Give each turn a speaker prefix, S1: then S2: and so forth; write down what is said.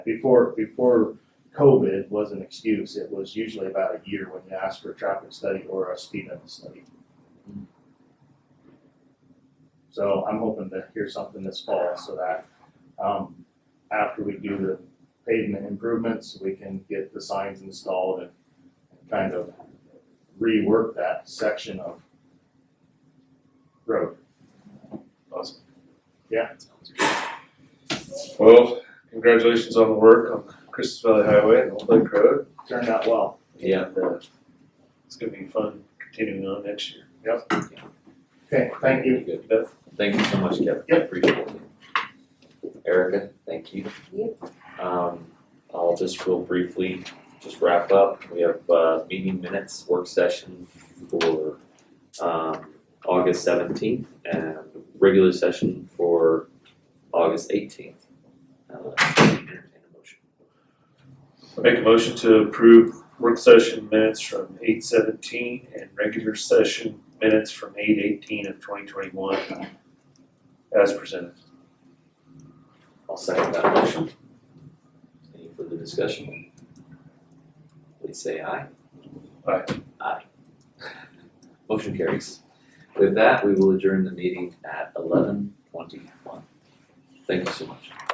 S1: Before, before COVID was an excuse, it was usually about a year when you asked for a traffic study or a speed limit study. So I'm hoping to hear something this fall so that, um, after we do the pavement improvements, we can get the signs installed and kind of rework that section of road.
S2: Awesome.
S1: Yeah.
S2: Well, congratulations on the work on Christmas Valley Highway and Old Lake Road.
S1: Turned out well.
S3: Yeah.
S2: And, uh, It's gonna be fun continuing on next year.
S1: Okay, thank you.
S3: Good. Thank you so much, Kevin. I
S1: Yep.
S3: Appreciate it. Erica, thank you. Um, I'll just real briefly just wrap up. We have, uh, meeting minutes, work session for, um, August seventeenth and regular session for August eighteenth. Uh, entertain a motion.
S2: I Make a motion to approve work session minutes from eight seventeen and regular session minutes from eight eighteen of twenty twenty-one as presented.
S3: I'll second that motion. Any further discussion? Please say aye.
S2: Aye.
S3: Aye. Motion carries. With that, we will adjourn the meeting at eleven twenty-one. Thank you so much.